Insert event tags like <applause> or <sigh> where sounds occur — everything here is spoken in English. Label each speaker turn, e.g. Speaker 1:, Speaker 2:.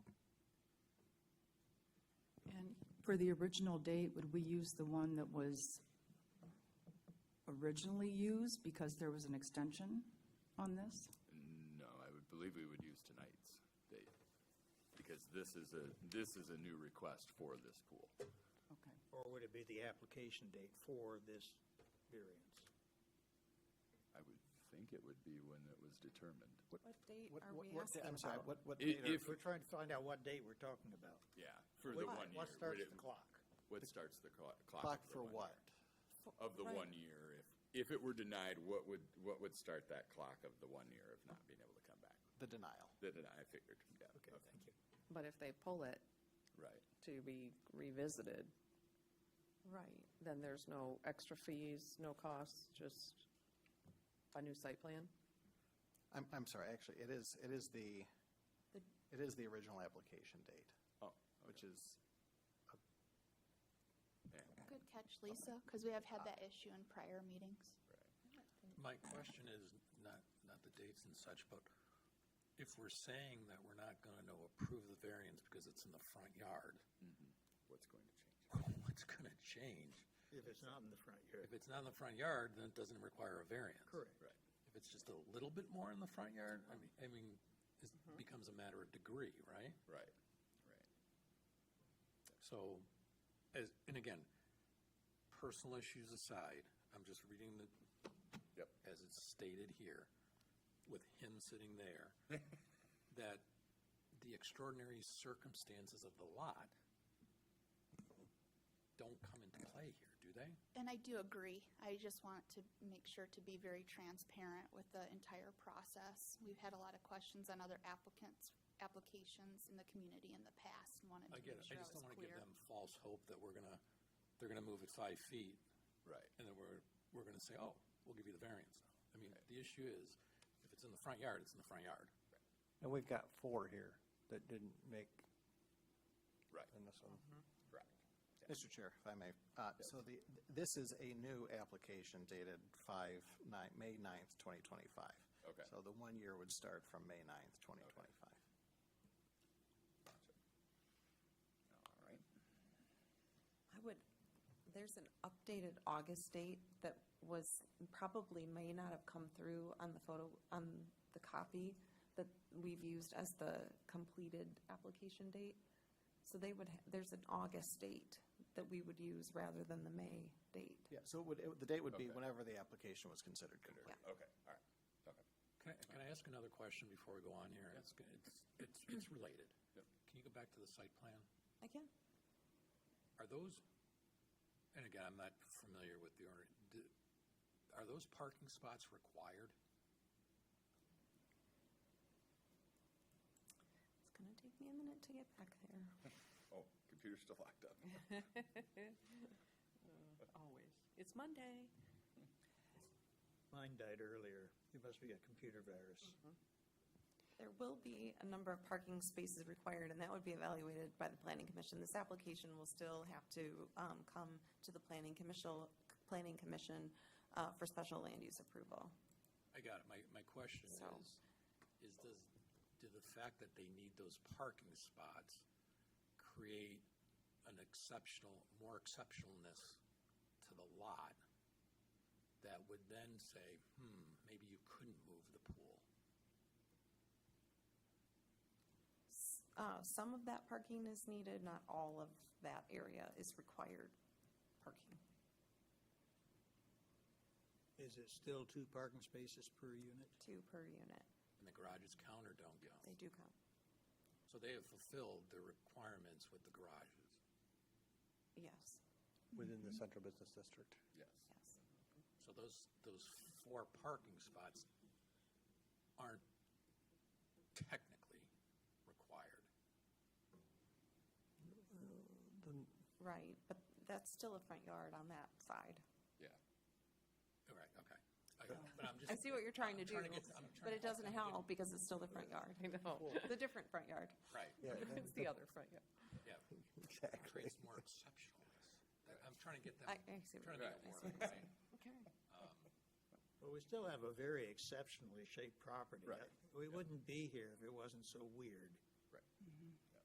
Speaker 1: For the original date, would we use the one that was originally used because there was an extension on this?
Speaker 2: No, I would believe we would use tonight's date, because this is a, this is a new request for this pool.
Speaker 1: Okay.
Speaker 3: Or would it be the application date for this variance?
Speaker 2: I would think it would be when it was determined.
Speaker 4: What date
Speaker 3: What-
Speaker 4: are
Speaker 3: what-
Speaker 4: we
Speaker 3: what-
Speaker 4: asking
Speaker 3: I'm sorry,
Speaker 4: about?
Speaker 3: what, what
Speaker 2: I-
Speaker 3: date are-
Speaker 2: if-
Speaker 3: we're trying to find out what date we're talking about.
Speaker 2: Yeah, for the
Speaker 3: What-
Speaker 2: one year.
Speaker 3: What starts
Speaker 2: would it-
Speaker 3: the clock?
Speaker 2: What starts the clo- clock?
Speaker 5: Clock
Speaker 2: of the
Speaker 5: for
Speaker 2: one
Speaker 5: what?
Speaker 2: year? Of the
Speaker 4: Right.
Speaker 2: one year, if, if it were denied, what would, what would start that clock of the one year of not being able to come back?
Speaker 5: The denial.
Speaker 2: The deny, I figured, yeah.
Speaker 3: Okay, thank you.
Speaker 6: But if they pull it
Speaker 2: Right.
Speaker 6: to be revisited,
Speaker 4: Right.
Speaker 6: then there's no extra fees, no costs, just a new site plan?
Speaker 5: I'm, I'm sorry, actually, it is, it is the, it is the original application date,
Speaker 2: Oh,
Speaker 5: which is,
Speaker 2: yeah,
Speaker 7: Good catch, Lisa, because we have had that issue in prior meetings.
Speaker 8: My question is not, not the dates and such, but if we're saying that we're not going to approve the variance because it's in the front yard, <laughs>
Speaker 2: what's going to change?
Speaker 8: what's going to change?
Speaker 3: If it's not in the front yard.
Speaker 8: If it's not in the front yard, then it doesn't require a variance.
Speaker 3: Correct.
Speaker 2: Right.
Speaker 8: If it's just a little bit more in the front yard, I mean, I mean, it becomes a matter of degree, right?
Speaker 2: Right, right.
Speaker 8: So, as, and again, personal issues aside, I'm just reading the.
Speaker 2: Yep.
Speaker 8: As it's stated here, with him sitting there, that the extraordinary circumstances of the lot don't come into play here, do they?
Speaker 7: And I do agree. I just want to make sure to be very transparent with the entire process. We've had a lot of questions on other applicants, applications in the community in the past and wanted to
Speaker 8: I get
Speaker 7: make
Speaker 8: it,
Speaker 7: sure I
Speaker 8: I just
Speaker 7: was
Speaker 8: don't wanna give
Speaker 7: clear.
Speaker 8: them false hope that we're gonna, they're gonna move it five feet
Speaker 2: Right.
Speaker 8: and then we're, we're gonna say, oh, we'll give you the variance now. I mean, the issue is, if it's in the front yard, it's in the front yard.
Speaker 9: And we've got four here that didn't make.
Speaker 2: Right.
Speaker 9: In this one.
Speaker 2: Correct.
Speaker 5: Mr. Chair, if I may, uh, so the, this is a new application dated five, nine, May ninth, twenty twenty-five.
Speaker 2: Okay.
Speaker 5: So the one year would start from May ninth, twenty twenty-five.
Speaker 2: All right.
Speaker 4: I would, there's an updated August date that was, probably may not have come through on the photo, on the copy that we've used as the completed application date. So they would, ha- there's an August date that we would use rather than the May date.
Speaker 5: Yeah, so it would, it would- the date would be
Speaker 2: Okay.
Speaker 5: whenever the application was considered complete.
Speaker 2: Okay, all right, okay.
Speaker 8: Can I, can I ask another question before we go on here? It's, g- it's, it's, it's related.
Speaker 2: Yep.
Speaker 8: Can you go back to the site plan?
Speaker 4: Again,
Speaker 8: Are those, and again, I'm not familiar with the, owner, d- are those parking spots required?
Speaker 4: it's gonna take me a minute to get back there.
Speaker 2: Oh, computer's still locked
Speaker 3: <laughs>
Speaker 2: up.
Speaker 6: <laughs> Always. It's Monday.
Speaker 3: Mine died earlier. It must be a computer virus.
Speaker 4: There will be a number of parking spaces required, and that would be evaluated by the planning commission. This application will still have to um, come to the planning commission, planning commission uh, for special land use approval.
Speaker 8: I got it. My, my question
Speaker 4: So-
Speaker 8: is, is does, do the fact that they need those parking spots create an exceptional, more exceptionalness to the lot that would then say, hmm, maybe you couldn't move the pool?
Speaker 4: Uh, Some of that parking is needed, not all of that area is required parking.
Speaker 3: Is it still two parking spaces per unit?
Speaker 4: Two per unit,
Speaker 8: And the garages count or don't count?
Speaker 4: they do count.
Speaker 8: So they have fulfilled their requirements with the garages.
Speaker 4: Yes,
Speaker 9: Within the central business district.
Speaker 2: Yes.
Speaker 4: yes.
Speaker 8: So those, those four parking spots aren't technically required.
Speaker 9: Then
Speaker 4: Right, but that's still a front yard on that side.
Speaker 2: Yeah.
Speaker 8: All right, okay. I- But I'm just.
Speaker 4: I see what you're trying to
Speaker 8: I'm
Speaker 4: do,
Speaker 8: get- I'm
Speaker 4: but
Speaker 8: trying
Speaker 4: it
Speaker 8: to-
Speaker 4: doesn't help because it's still the front
Speaker 8: <laughs>
Speaker 4: yard.
Speaker 6: <laughs> I know.
Speaker 4: The different front yard.
Speaker 8: Right,
Speaker 9: Yeah, then-
Speaker 6: It's the other front, yeah.
Speaker 8: yeah. It
Speaker 9: exactly.
Speaker 8: Creates more exceptionalness. That- I'm trying to get
Speaker 4: I,
Speaker 8: that,
Speaker 4: I see what
Speaker 8: trying to
Speaker 4: you're doing.
Speaker 8: make it work,
Speaker 4: I see what you're
Speaker 8: right?
Speaker 4: Okay.
Speaker 3: Well, we still have a very exceptionally shaped property.
Speaker 2: Right.
Speaker 3: We wouldn't be here if it wasn't so weird.